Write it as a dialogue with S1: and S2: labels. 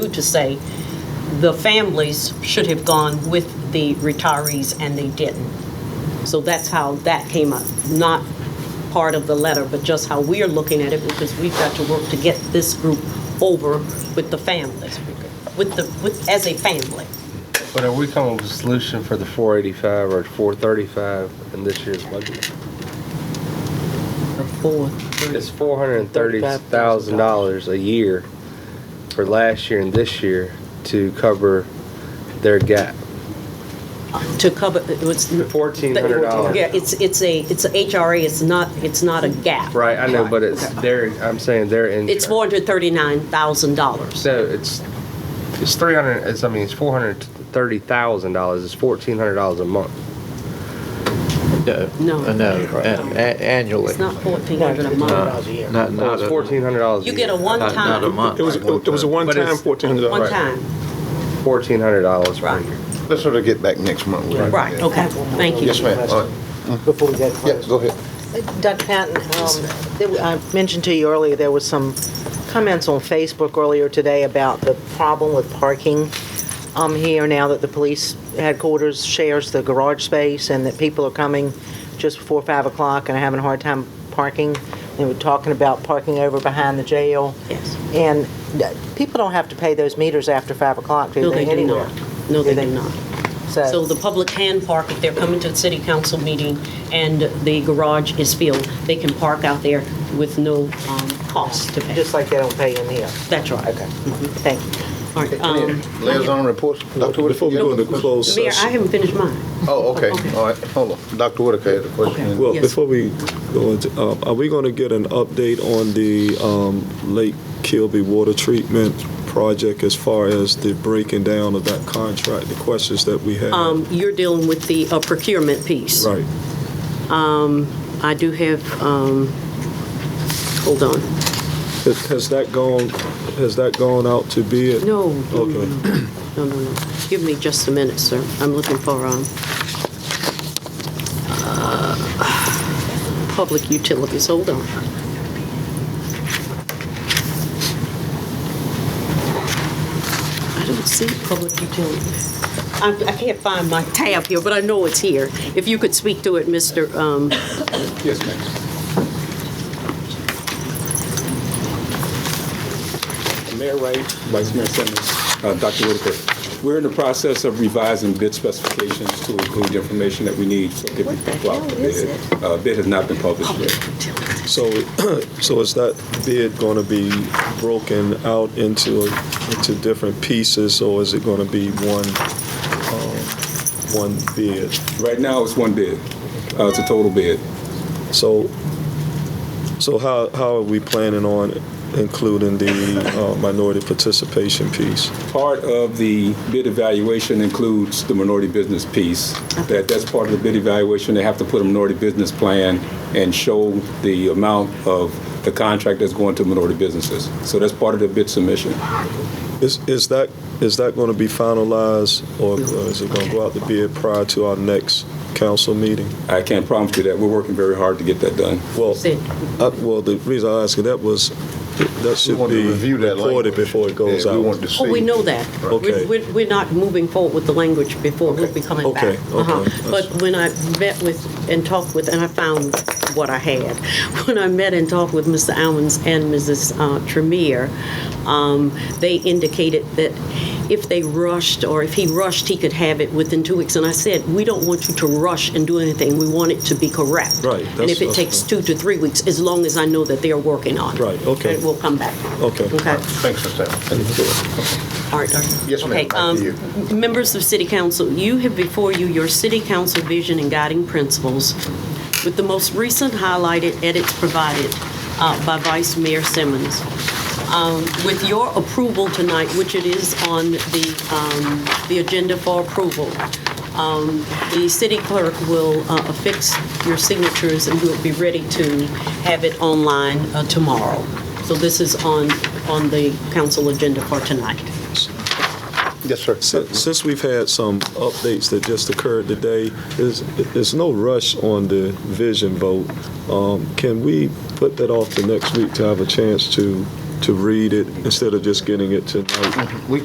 S1: to say the families should have gone with the retirees and they didn't. So that's how that came up, not part of the letter, but just how we're looking at it because we've got to work to get this group over with the families, with the, with, as a family.
S2: But are we coming up with a solution for the 485 or 435 in this year's budget? It's $430,000 a year for last year and this year to cover their gap.
S1: To cover, it was.
S2: $1,400.
S1: Yeah, it's, it's a, it's a HRA, it's not, it's not a gap.
S2: Right, I know, but it's their, I'm saying their insurance.
S1: It's four hundred thirty-nine thousand dollars.
S2: So it's, it's 300, it's, I mean, it's $430,000, it's $1,400 a month.
S3: No.
S1: No.
S3: Uh, No, an- a- annually.
S1: It's not fourteen hundred a month.
S3: Not,
S2: Well,
S3: not
S2: it's
S3: a-
S2: $1,400 a
S1: You get a
S2: year.
S3: not- Not a
S1: one-time,
S3: month.
S4: It was, it was a one-time
S2: it's-
S4: fourteen hundred
S1: one
S4: dollars.
S1: time.
S2: $1,400 per
S1: Right.
S2: year.
S5: Let's sort of get back next month.
S1: Right, okay, thank you.
S5: Yes, ma'am. All right.
S6: Before we get
S5: Yeah,
S6: closed.
S5: go ahead.
S6: Dr. Uh, Patton, um, there were- I mentioned to you earlier, there was some comments on Facebook earlier today about the problem with parking um, here now that the police headquarters shares the garage space and that people are coming just before 5 o'clock and are having a hard time parking. They were talking about parking over behind the jail.
S1: Yes.
S6: And uh, people don't have to pay those meters after 5 o'clock, do
S1: No,
S6: they,
S1: they do
S6: anywhere?
S1: not. No, they
S6: Do
S1: do
S6: they-
S1: not. So
S6: So,
S1: the public can park if they're coming to the city council meeting and the garage is filled, they can park out there with no um, cost to pay.
S6: just like they don't pay in here.
S1: That's right. Mm-hmm.
S6: Okay, thank you.
S1: All right, um,
S5: Liaison reports. Dr. Whitaker.
S4: Before we go into closed
S1: Mayor, I
S4: session,
S1: haven't finished mine.
S5: Oh, okay.
S1: Okay.
S5: All right. Hold on. Dr. Whitaker had a question.
S4: well,
S1: Yes.
S4: before we go into, um, are we going to get an update on the um, Lake Kilby Water Treatment Project as far as the breaking down of that contract, the questions that we had?
S1: Um, You're dealing with the uh, procurement piece.
S4: Right.
S1: I do have, um, hold on.
S4: Has has that gone, has that gone out to bid?
S1: No, no, no,
S4: Okay.
S1: no, no, no. Give me just a minute, sir. I'm looking for, um, uh, public utilities. Hold on. I don't see public utilities. I, I can't find my tab here, but I know it's here. If you could speak to it, Mr., um,
S5: Yes, ma'am.
S7: Mayor Wright, Vice Mayor Simmons, uh, Dr. Whitaker. We're in the process of revising bid specifications to include the information that we need so that we can go out to bid. Uh, Bid has not been published yet.
S4: So, so is that bid going to be broken out into, into different pieces, or is it going to be one, um, one bid?
S7: Right now, it's one bid. Uh, It's a total bid.
S4: So, so how, how are we planning on including the uh, minority participation piece?
S7: Part of the bid evaluation includes the minority business piece. That, that's part of the bid evaluation. They have to put a minority business plan and show the amount of the contract that's going to minority businesses. So that's part of the bid submission.
S4: Is, is that, is that going to be finalized, or is it going to go out to bid prior to our next council meeting?
S7: I can't promise you that. We're working very hard to get that done.
S4: Well,
S1: Sid.
S4: I- well, the reason I asked you that was, that
S5: We
S4: should
S5: want
S4: be
S5: to review that
S4: reported
S5: language.
S4: before it goes
S5: Yeah,
S4: out.
S5: We want to see.
S1: oh, we know that. We're-
S4: Okay.
S1: We're, we're not moving forward with the language before, we'll be coming back.
S4: Okay, okay.
S1: Uh-huh. But when I met with and talked with, and I found what I had, when I met and talked with Mr. Almonds and Mrs. uh, Tremere, um, they indicated that if they rushed, or if he rushed, he could have it within two weeks. And I said, we don't want you to rush and do anything, we want it to be correct.
S4: Right,
S1: And
S4: that's-
S1: if it
S4: that's
S1: takes
S4: fine.
S1: two to three weeks, as long as I know that they are working on it.
S4: Right, okay.
S1: And we'll come back.
S4: Okay.
S1: Okay.
S5: Thanks, Mr. Allen.
S1: All right. all right.
S5: Yes, ma'am.
S1: Okay,
S5: Back to
S1: um,
S5: you.
S1: m- Members of City Council, you have before you your City Council vision and guiding principles with the most recent highlighted edits provided uh, by Vice Mayor Simmons. Um, With your approval tonight, which it is on the, um, the agenda for approval, um, the city clerk will uh, affix your signatures and we'll be ready to have it online uh, tomorrow. So this is on, on the council agenda for tonight.
S5: Yes, sir.
S4: Si- Since we've had some updates that just occurred today, there's, there's no rush on the vision vote. Um, Can we put that off to next week to have a chance to to read it instead of just getting it tonight.